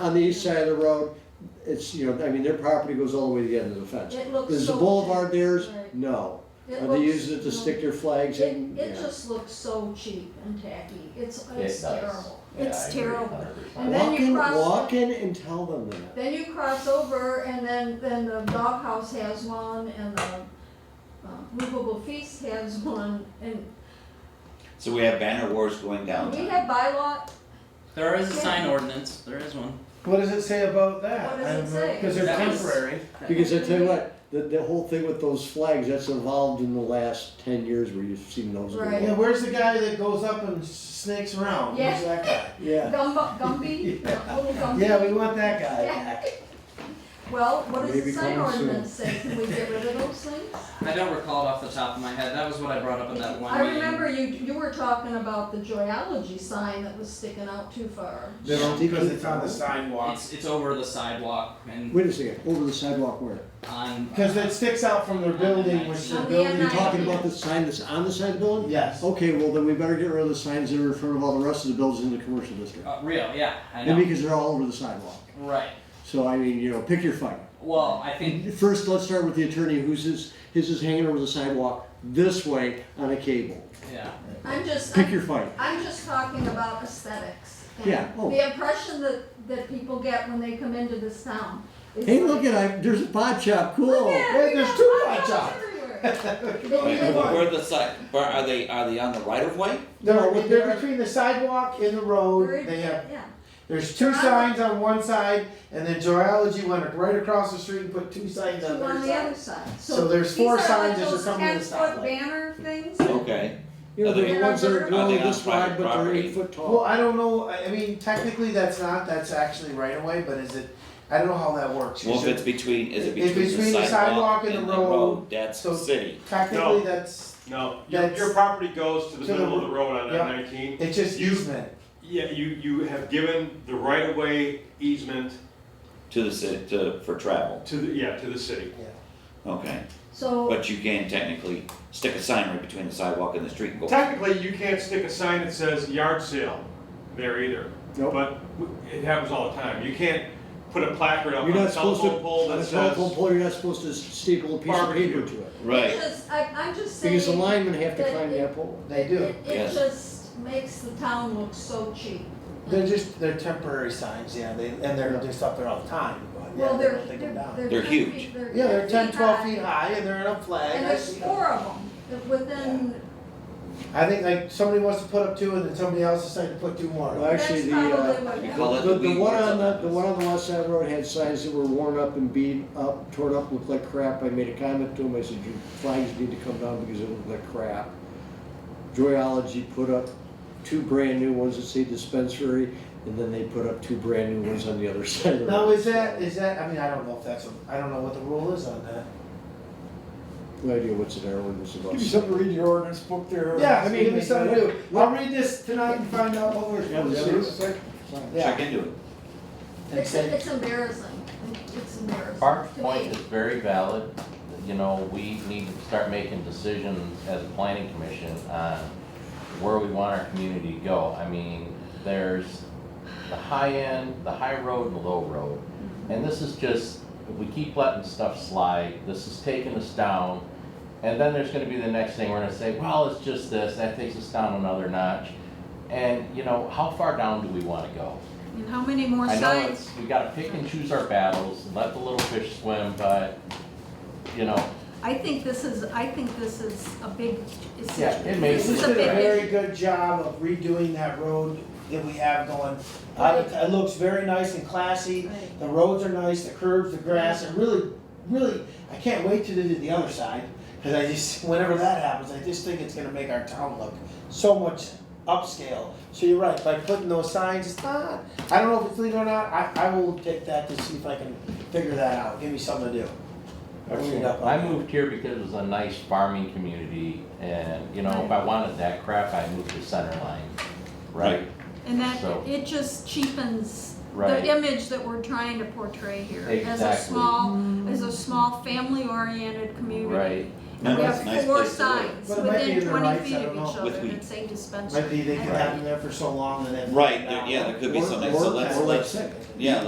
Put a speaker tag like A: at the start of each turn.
A: on the east side of the road, it's, you know, I mean, their property goes all the way to the end of the fence.
B: It looks
A: Is the
B: so
A: boulevard
B: cheap.
A: theirs?
B: Right.
A: No.
B: It
A: Are they
B: looks-
A: using it to stick their flags in?
B: It, it
A: Yeah.
B: just looks so cheap and tacky, it's,
C: It
B: it's
C: does.
B: terrible,
C: Yeah, I
B: it's
C: agree
B: terrible.
C: 100%.
B: And then
A: Walk
B: you
A: in,
B: cross-
A: walk in and tell them that.
B: Then you cross over and then, then the doghouse has one and the uh, movable feast has one and
D: So we have banner wars going
B: we
D: downtown.
B: have bylaw,
E: There is a sign ordinance, there is one.
F: What does it say about that?
B: What does it say?
F: Because they're
E: That was-
F: temporary.
A: Because I tell you what, the, the whole thing with those flags, that's evolved in the last ten years where you've seen those. go
B: Right.
F: Yeah,
A: up.
F: where's the guy that goes up and snakes around? Who's
B: Yeah.
F: that guy?
A: Yeah,
B: Gumbo, Gumby, the little Gumby.
F: Yeah, we want that guy
B: Yeah.
F: back.
B: Well, what does the
A: Maybe
B: sign
A: coming soon.
B: ordinance say, can we get rid of those things?
E: I don't recall it off the top of my head, that was what I brought up in that one
B: I
E: meeting.
B: remember you, you were talking about the Joyology sign that was sticking out too far.
F: They don't- Because it's on the
A: Sticky.
F: sidewalk.
E: It's, it's over the sidewalk and
A: wait a second, over the sidewalk where?
E: on. uh,
F: Because it sticks out from their building, which the
B: On the
F: building.
A: You're
B: Right.
A: talking about the sign that's on the side of the building?
F: Yes.
A: Okay, well then we better get rid of the signs that are in front of all the rest of the buildings in the commercial district.
E: Uh, real, yeah, I
A: And
E: know,
A: because they're all over the sidewalk.
E: right,
A: So I mean, you know, pick your fight.
E: well, I think,
A: First, let's start with the attorney who's his, his is hanging over the sidewalk this way on a cable.
E: yeah,
B: I'm just,
A: Pick your fight.
B: I'm just talking about aesthetics. and
A: Yeah, oh.
B: The impression that, that people get when they come into this town. It's
A: Hey,
B: like,
A: look at, I, there's a pot shop,
B: Look
A: cool.
B: at,
F: Hey,
B: we
F: there's
B: got
F: two
B: potholes
F: hot
B: everywhere.
D: And
B: They-
D: Where the side, where are they, are they on the right of way?
F: No,
A: No,
F: they're between the sidewalk and the road. They have,
B: Yeah,
F: there's two
B: Joyology.
F: signs on one side, and then Geology went right across the street and put two signs
B: two
F: on
B: on
F: their
B: the other
F: side.
B: side.
F: So there's four
B: these
F: signs that are coming to the
B: like those ten foot
F: stoplight.
B: banner things.
D: Okay,
A: You know, they're the ones that are
D: Are
A: growing
D: they on
A: this wide,
D: private
A: but they're
D: property?
A: eight foot tall.
F: Well, I don't know, I I mean, technically that's not, that's actually right away, but is it, I don't know how that works.
D: well,
F: Is
D: if
F: it-
D: it's between, is it
F: It's
D: between the sidewalk and the road, that's
F: so-
D: city.
F: Technically, that's,
G: No, your,
F: That's-
G: your property goes to the
F: To the
G: middle of
F: ro-
G: the road on
F: yeah.
G: N nineteen.
F: it's just
G: You-
F: easement.
G: Yeah, you, you have given the right of way easement
D: To the city, to, for travel,
G: to the, yeah, to the city.
D: okay,
B: So,
D: but you can technically stick a sign right between the sidewalk and the street and go.
G: Technically, you can't stick a sign that says yard sale there either.
A: Nope.
G: But w- it happens all the time. You can't put a placard up
A: You're
G: on a
A: not supposed to,
G: telephone pole
A: on
G: that
A: a telephone
G: says.
A: pole, you're not supposed to staple a piece of
G: Barbecue.
A: paper to it.
D: Right,
B: because I, I'm just saying.
A: Because the linemen have to
B: that
A: climb
B: it-
A: that pole.
F: They
B: It,
F: do.
B: it
D: Yes.
B: just makes the town look so cheap.
F: They're just, they're temporary signs, yeah, they, and they're
A: Yeah.
F: just up there all the time, but yeah,
B: Well,
F: they
B: they're,
F: don't take them down.
B: they're, they're
D: They're
B: ten
D: huge.
B: feet, they're
F: Yeah, they're ten, twelve
B: high.
F: feet high and they're in a flag.
B: And
F: I
B: there's
F: see them.
B: four of them within,
F: I think like somebody wants to put up two and then somebody else decided to put two
A: Well,
F: more.
B: that's
A: actually,
B: probably
A: the, uh,
B: what
D: you
B: happened.
D: call it
A: the, the
D: weed
A: one
D: wars
A: on the,
D: up.
A: the one on the west side of the road had signs that were worn up and beat up, torn up, looked like crap. I made a comment to him, I said, your flags need to come down because it looked like crap. Joyology put up two brand new ones that say dispensary, and then they put up two brand new ones on the other side of the road.
F: Now, is that, is that, I mean, I don't know if that's, a- I don't know what the rule is on that.
A: No idea what's in our ordinance about.
H: Give you something to read your ordinance book there.
F: Yeah, I mean, give me something to do. I'll read this tonight and find out what we're.
A: Yeah, we'll
H: Yeah, there's a second.
F: Yeah.
D: check into it.
F: And
B: It's,
F: say,
B: it's embarrassing, it's embarrassing
C: Park's
B: to
C: point
B: me.
C: is very valid, you know, we need to start making decisions as a planning commission on where we want our community to go. I mean, there's the high end, the high road and the low road. And this is just, if we keep letting stuff slide, this is taking us down. And then there's gonna be the next thing, we're gonna say, well, it's just this, that takes us down another notch. And, you know, how far down do we wanna go?
I: And how many more
C: I know
I: signs?
C: it's, we gotta pick and choose our battles and let the little fish swim, but, you know,
I: I think this is, I think this is a big, it's,
C: Yeah, it may
I: this
F: we
I: is
F: did
I: a
F: a
I: big
F: very
I: issue.
F: good job of redoing that road that we have going. I, it looks very nice and classy,
I: Right.
F: the roads are nice, the curves, the grass, and really, really, I can't wait till they do the other side. Cause I just, whenever that happens, I just think it's gonna make our town look so much upscale. So you're right, by putting those signs, it's not, I don't know if it's legal or not, I, I will take that to see if I can figure that out, give me something to do. I'll read it up on
C: I
F: that.
C: moved here because it was a nice farming community and, you know, if I wanted that crap, I moved to center line, right?
I: And that,
C: So-
I: it just cheapens
C: Right.
I: the image that we're trying to portray here. As a
C: Exactly.
I: small, as a small, family-oriented community.
C: Right.
I: And
D: No,
I: we
D: it's a
I: have
D: nice
I: four
D: place to live.
I: signs
F: But it might be in
I: within
F: their
I: twenty
F: rights,
I: feet
F: I
I: of
F: don't know.
I: each
D: With
I: other
D: we-
I: that say dispensary.
F: Might be they could
I: Right.
F: have them there for so long and then.
D: Right, there- yeah, there could be
A: Or-
D: something,
A: or-
D: so let's,
A: or
D: let's,
A: like-
D: yeah,